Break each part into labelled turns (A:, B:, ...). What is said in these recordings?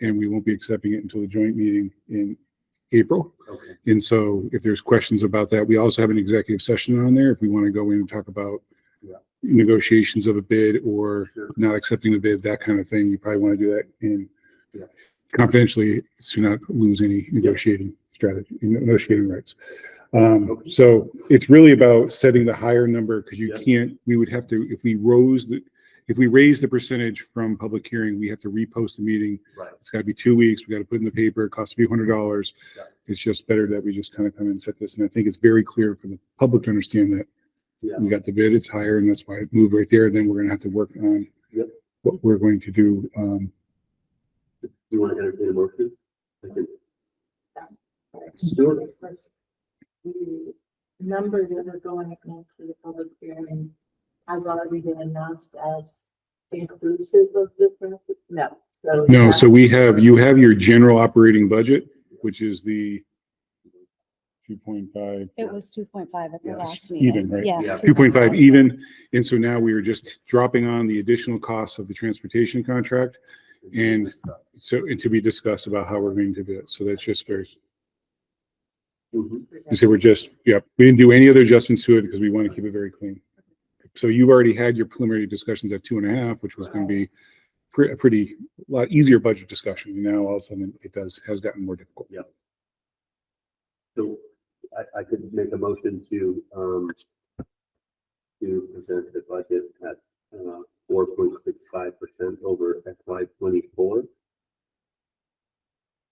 A: and we won't be accepting it until the joint meeting in April.
B: Okay.
A: And so if there's questions about that, we also have an executive session on there if we want to go in and talk about
B: Yeah.
A: negotiations of a bid or
B: Sure.
A: not accepting the bid, that kind of thing. You probably want to do that in
B: Yeah.
A: confidentially to not lose any negotiating strategy, negotiating rights. Um,
B: Okay.
A: so it's really about setting the higher number because you
B: Yeah.
A: can't, we would have to, if we rose the, if we raise the percentage from public hearing, we have to repost the meeting
B: Right.
A: it's got to be two weeks. We got to put it in the paper. It costs a few hundred dollars.
B: Yeah.
A: It's just better that we just kind of come and set this. And I think it's very clear for the public to understand that
B: Yeah.
A: we got the bid, it's higher, and that's why it moved right there. Then we're going to have to work on
B: Yep.
A: what we're going to do. Um,
B: Do you want to entertain a motion? I can. Sure.
C: The number that we're going into the public hearing has already been announced as inclusive of the, benefit? no, so.
A: no, so we have, you have your general operating budget, which is the two point five,
D: It was two point five at the
B: Yeah.
D: last meeting.
A: even, right?
D: Yeah.
B: Yeah.
A: Two point five even. And so now we are just dropping on the additional costs of the transportation contract. And- So, and to be discussed about how we're going to do it. So that's just very,
B: Mhm.
A: you say we're just, yep, we didn't do any other adjustments to it because we want to keep it very clean. So you've already had your preliminary discussions at two and a half, which was going to be pre- a pretty, lot easier budget discussion. And now all of a sudden it does, has gotten more difficult.
B: So I, I could make a motion to, um, to present the budget at, uh, four point six five percent over FY twenty-four.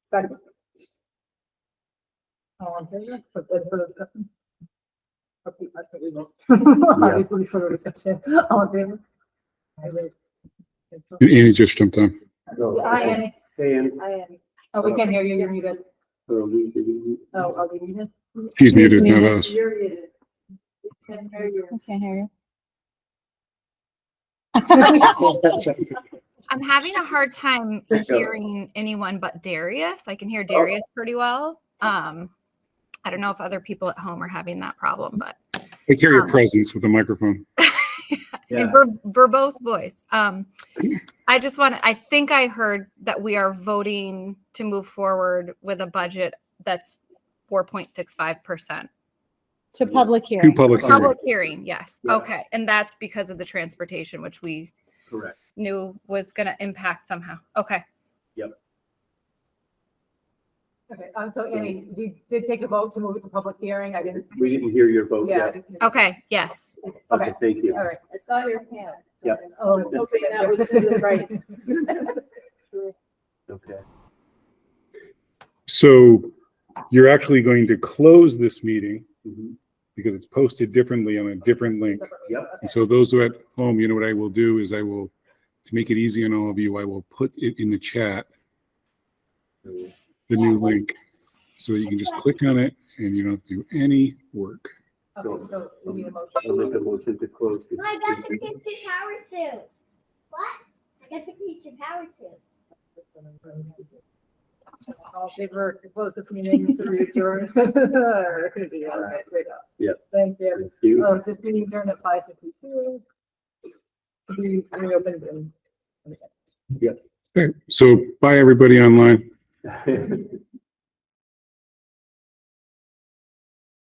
C: Second. All in favor?
E: For the for the discussion? Okay, I think we will. Obviously for the discussion,
C: Oh,
E: all in favor? I would.
A: And Annie just jumped on.
E: Hi, Annie.
B: Oh, And,
C: I am.
E: Oh, we can hear you. You're muted.
B: so we, we,
E: Oh, are we muted?
A: She's
D: Excuse
A: muted,
D: me.
A: not us.
C: You're muted. We can hear you.
D: I can't hear you.
E: oh.
F: I'm having a hard time hearing anyone but Darius. I can hear Darius pretty well. Um, I don't know if other people at home are having that problem, but
A: I carry a presence with a microphone.
F: and ver- verbose voice. Um, I just want to, I think I heard that we are voting to move forward with a budget that's 4.65%.
D: To public
A: Two
D: hearing.
A: public hearings.
F: Public hearing, yes.
B: Yeah.
F: Okay. And that's because of the transportation, which we
B: correct.
F: knew was going to impact somehow. Okay.
E: Okay, um, so Annie, we did take a vote to move it to public hearing. I didn't
B: We
E: see.
B: didn't hear your vote
E: Yeah. I
B: yet.
E: didn't hear-
F: Okay. Yes.
B: Okay,
E: Okay,
B: thank you.
E: all right.
C: I saw your hand.
B: Yeah.
E: Oh,
C: Okay, that was to the right.
B: Okay.
A: So you're actually going to close this meeting
B: Mhm.
A: because it's posted differently on a different link.
B: Yep.
A: And so those who are at home, you know what I will do is I will, to make it easy on all of you, I will put it in the chat,
B: So-
A: the new link. So you can just click on it and you don't have to do any work.
E: Okay, so we need a
B: I'll make a
E: motion.
B: motion to close. the-
G: Well, I got the Peach Power suit. What? I got the Peach Power suit.
E: All in favor to close this meeting to adjourn.
B: Yeah.
E: Thank you.
B: Thank you.
E: Oh, this meeting during at five fifty-two. We reopened in
A: Okay, so bye, everybody online.
E: Oh.
B: Good